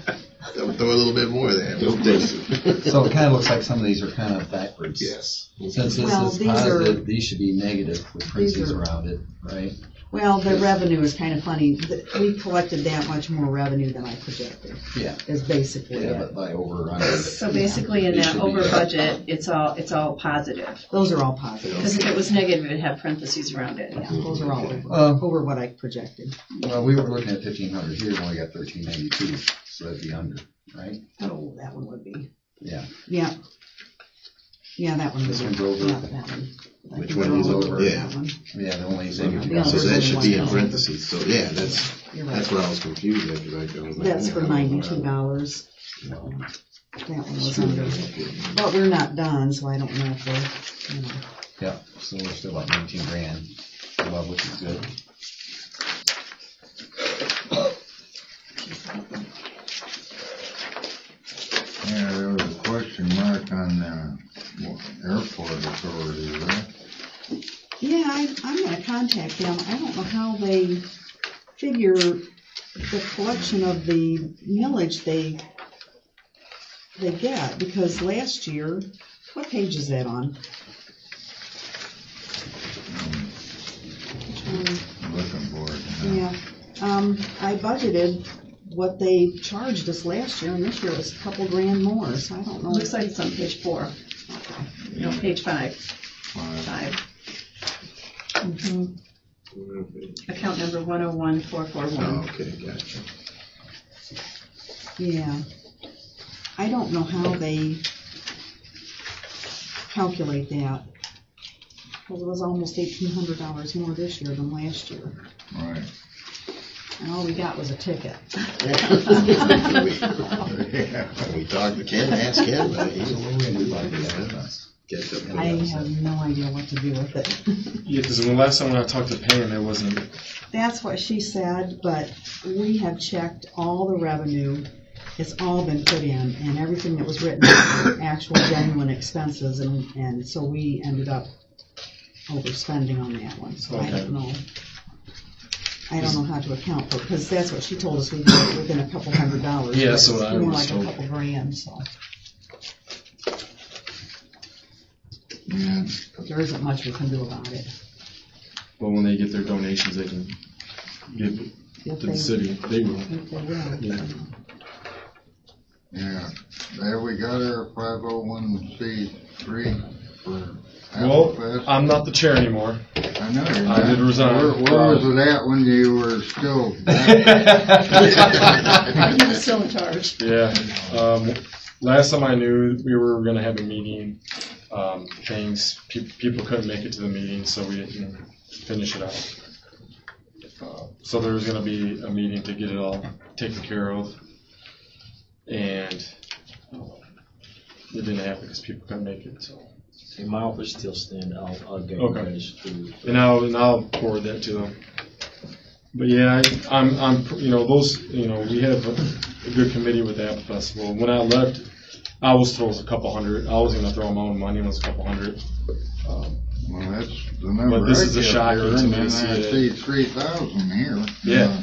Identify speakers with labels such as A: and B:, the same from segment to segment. A: throw a little bit more there.
B: Just this.
C: So it kind of looks like some of these are kind of backwards.
B: Yes.
C: Since this
D: Well,
C: is
D: these are-
C: positive, these should be negative with parentheses
D: are-
C: around it, right?
D: Well, the revenue is kind of funny. The- We collected that much more revenue than I projected,
C: Yeah,
D: is basically
C: yeah,
D: it.
C: but by over or under.
E: So basically, in
C: It
E: that
C: should be-
E: over budget, it's all, it's all positive.
D: Those are all positive.
E: Because if it was negative, it'd have parentheses around it.
D: Yeah, those are all over,
C: Uh,
D: over what I projected.
C: well, we were looking at fifteen hundred here, and we got thirteen ninety-two, so that'd be under, right?
D: Oh, that one would be.
C: Yeah.
D: Yeah. Yeah, that one.
C: This
D: would be-
C: one's over.
D: yeah, that one. I
C: Which
D: think
C: one
D: they're
C: is
D: all
C: over?
D: that one.
C: Yeah, the only thing.
D: Yeah.
A: So
C: So
A: that should be in parentheses, so yeah, that's,
D: You're
A: that's
D: right.
A: what I was confused after I was like.
D: That's
A: yeah,
D: for
A: I don't know.
D: ninety-two dollars. That one was under.
A: Yeah.
D: But we're not done, so I don't know if we're, you know.
C: Yeah, so we're still about nineteen grand above, which is good.
F: Yeah, there was a question mark on the airport authority, right?
D: Yeah, I, I'm gonna contact them. I don't know how they figure the collection of the millage they, they get, because last year, what page is that on? Which one?
F: I'm Looking for it.
D: Yeah, um, I budgeted what they charged us last year, and this year it was a couple grand more, so I don't know.
E: Looks like it's on page four. No, page five, five. Mhm. Account number one oh one four four
A: Oh,
E: one.
A: okay, gotcha.
D: Yeah. I don't know how they calculate that. Cause it was almost eighteen hundred dollars more this year than last year,
F: Right.
D: and all we got was a ticket.
F: Yeah.
A: We talked to Ken, asked Ken, but he's
C: So
A: a
C: what
A: little
C: we
A: bit
C: do
A: like
C: like
A: that.
C: that?
A: Catch up with
D: I
A: us.
D: have no idea what to do with it.
G: Yeah, because the last time when I talked to Pam, it wasn't.
D: That's what she said, but we have checked all the revenue. It's all been put in and everything that was written, were actual genuine expenses and, and so we ended up overspending on that one, so I don't know. I don't know how to account for, because that's what she told us, we were within a couple hundred dollars.
G: Yeah,
D: but
G: that's what I
D: More
G: was
D: like a
G: told.
D: couple grand, so. There isn't much we can do about it.
G: But when they get their donations, they can give it
D: If
G: to
D: they-
G: the city. They will.
D: if they will.
G: Yeah.
F: Yeah, there we got our five oh one C three for Apple
G: Well,
F: Fest.
G: I'm not the chair anymore.
F: I know you're
G: I
F: not.
G: did resign.
F: Where, where was it at when you were still?
E: He was still in charge.
G: Yeah. Um, last time I knew, we were going to have a meeting. Um, things pe- people couldn't make it to the meeting, so we didn't finish it out. Uh, so there was going to be a meeting to get it all taken care of, and um, it didn't happen because people couldn't make it. So.
H: In my office still stand, I'll, I'll get you
G: Okay.
H: guys to.
G: And I'll, and I'll forward that to them. But yeah, I, I'm, I'm, you know, those, you know, we have a, a good committee with that festival. When I left, I was throws a couple hundred, I was gonna throw my own money, it was a couple hundred. Um,
F: Well, that's the number.
G: But this
F: I
G: is a
F: kept
G: shocker to
F: hearing,
G: me to
F: and
G: see
F: I
G: it.
F: see three thousand here.
G: Yeah.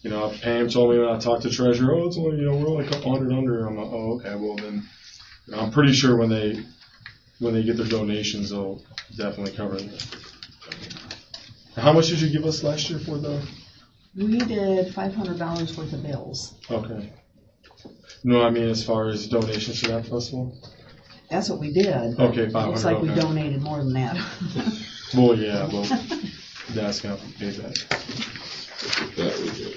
G: You know, Pam told me when I talked to treasurer, oh, it's only, you know, we're only a couple hundred under. I'm like, oh, okay, well then, you know, I'm pretty sure when they, when they get their donations, they'll definitely cover it. How much did you give us last year for the?
D: We did five hundred dollars worth of bills.
G: Okay. No, I mean as far as donations to that festival?
D: That's what we did.
G: Okay, five
D: Looks like we
G: hundred, okay.
D: donated more than that.
G: Well, yeah, well, that's gonna pay back.
B: That we did.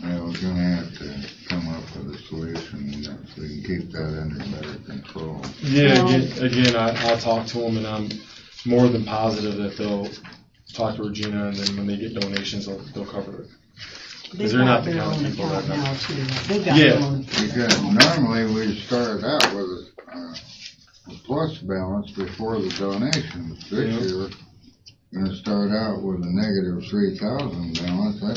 F: Yeah, we're gonna have to come up with a solution that we can keep that under better control.
G: Yeah,
D: Well-
G: again, again, I, I'll talk to them and I'm more than positive that they'll talk to Regina and then when they get donations, they'll, they'll cover it.
D: They've
G: they're
D: got
G: not the
D: their
G: kind of
D: own
G: people
D: account
G: that-
D: now too. They've got their
G: Yeah.
D: own.
F: Because normally we start out with a, uh, a plus balance before the donations.
G: Yeah.
F: This year, gonna start out with a negative three thousand balance, that,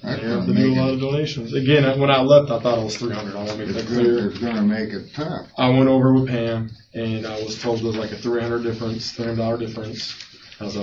F: that's
G: They
F: gonna
G: have to do a
F: make
G: lot
F: it,
G: of donations. Again, I- when I left, I thought it was three hundred, I wanna make that
F: it's gonna,
G: clear.
F: it's gonna make it tough.
G: I went over with Pam and I was told there's like a three hundred difference, three hundred dollar difference.